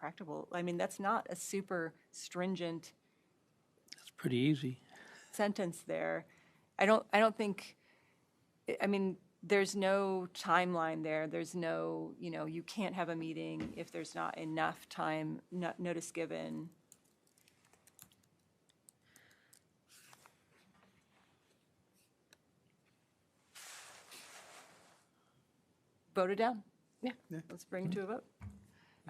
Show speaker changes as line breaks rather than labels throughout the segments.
practicable. I mean, that's not a super stringent
It's pretty easy.
sentence there. I don't, I don't think, I- I mean, there's no timeline there. There's no, you know, you can't have a meeting if there's not enough time, no- notice given. Voted down.
Yeah.
Let's bring it to a vote.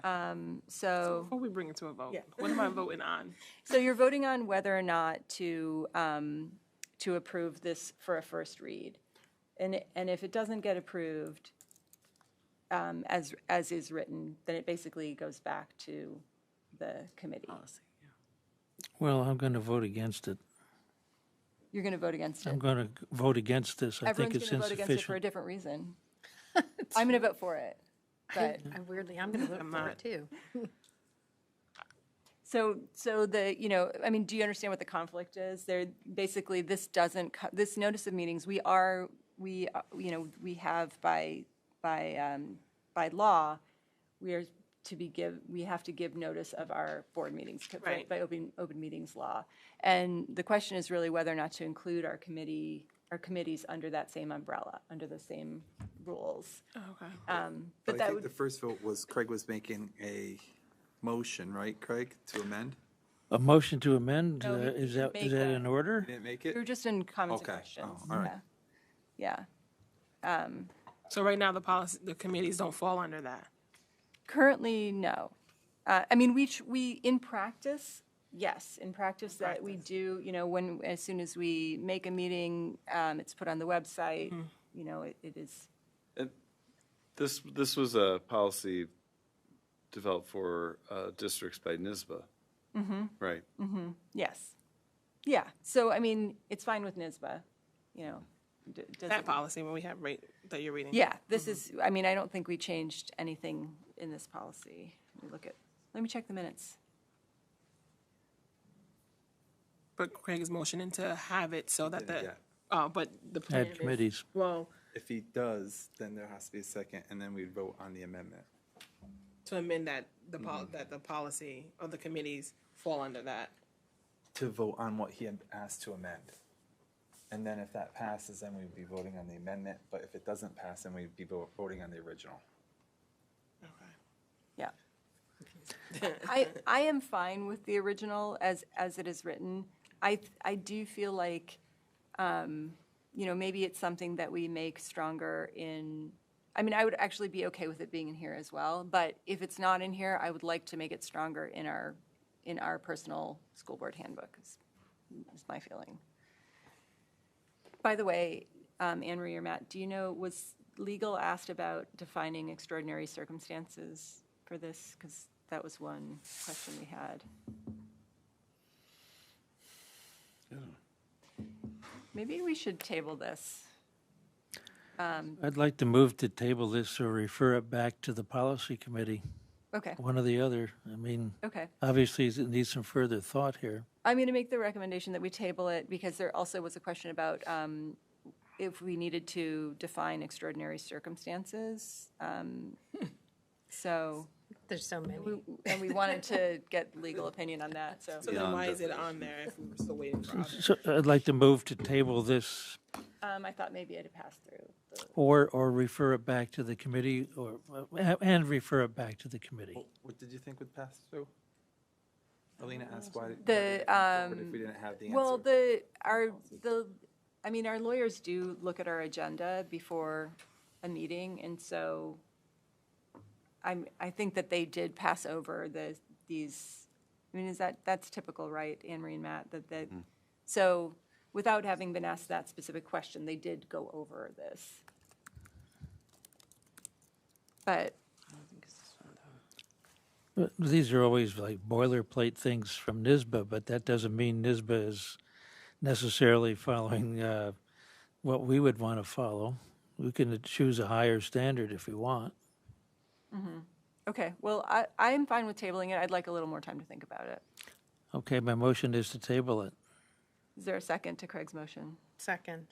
Um, So.
Before we bring it to a vote,
Yeah.
what am I voting on?
So you're voting on whether or not to, um, to approve this for a first read. And, and if it doesn't get approved, um, as, as is written, then it basically goes back to the committee.
Well, I'm going to vote against it.
You're going to vote against
I'm
it.
going to vote against this. I think
Everyone's
it's
going to vote against it for a
insufficient.
different reason. I'm going to vote for it, but.
I Weirdly, I'm going to vote
I'm
for
not.
it too.
So, so the, you know, I mean, do you understand what the conflict is? There, basically, this doesn't, co- this notice of meetings, we are, we, uh, you know, we have by, by, um, by law, we are to be give, we have to give notice of our board meetings to- by
Right.
by open, open meetings law. And the question is really whether or not to include our committee, our committees under that same umbrella, under the same rules.
Okay.
Um, But
Uh, But I
that
think the
would,
first vote was Craig was making a motion, right, Craig, to amend?
A motion to amend,
No,
uh,
we
is that,
make
is that
a-
in order?
Didn't make
we were
it?
just in comments and
Okay.
questions.
Oh, all right.
Yeah. Yeah.
So right now, the policy, the committees don't fall under that.
Currently, no. Uh, I mean, we, tr- we, in practice, yes, in practice that we do, you know, when, as soon as we make a meeting, um, it's put on the website, you know, it it is,
This, this was a policy developed for uh, districts by NISBA. Right.
yes. Yeah, so, I mean, it's fine with NISBA, you know. d- doesn't-
That policy when we have rate that you're reading.
Yeah, this is, I mean, I don't think we changed anything in this policy. Let me look at, let me check the minutes.
But Craig is motioning to have it so that the,
Yeah.
oh, but the plan
Add
is-
committees.
Well,
If he does, then there has to be a second, and then we vote on the amendment.
to amend that, the pol, that the policy of the committees fall under that.
To vote on what he had asked to amend. And then if that passes, then we'd be voting on the amendment, but if it doesn't pass, then we'd be vo- voting on the original.
Yeah. I, I am fine with the original as, as it is written. I, I do feel like, um, you know, maybe it's something that we make stronger in, I mean, I would actually be okay with it being in here as well, but if it's not in here, I would like to make it stronger in our, in our personal school board handbook, is, is my feeling. By the way, um, Anne Marie or Matt, do you know, was legal asked about defining extraordinary circumstances for this? Because that was one question we had. Maybe we should table this.
I'd like to move to table this or refer it back to the policy committee,
Okay,
one or the other. I mean,
okay.
obviously, it needs some further thought here.
I'm going to make the recommendation that we table it because there also was a question about um, if we needed to define extraordinary circumstances. Um, So,
There's so many.
we- and we wanted to get legal opinion on that, so.
So then
Beyond
why is it on there if we're still waiting for? others?
So I'd like to move to table this
Um, I thought maybe it had passed through. the-
or, or refer it back to the committee or, uh, and refer it back to the committee.
What did you think would pass through? Alina asked why. why
The,
did it come forward If we didn't have the answer.
Well, the, our, the, I mean, our lawyers do look at our agenda before a meeting, and so I'm, I think that they did pass over the, these, I mean, is that, that's typical, right, Anne Marie and Matt, that,
Mm-hmm.
that, so without having been asked that specific question, they did go over this. But
But These are always like boilerplate things from NISBA, but that doesn't mean NISBA is necessarily following uh, what we would want to follow. We can choose a higher standard if we want.
Okay, well, I, I am fine with tabling it. I'd like a little more time to think about it.
Okay, my motion is to table it.
Is there a second to Craig's motion?
Second.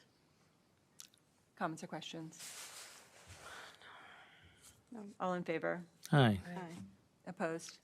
Comments or questions? All in favor?
Aye.
Opposed?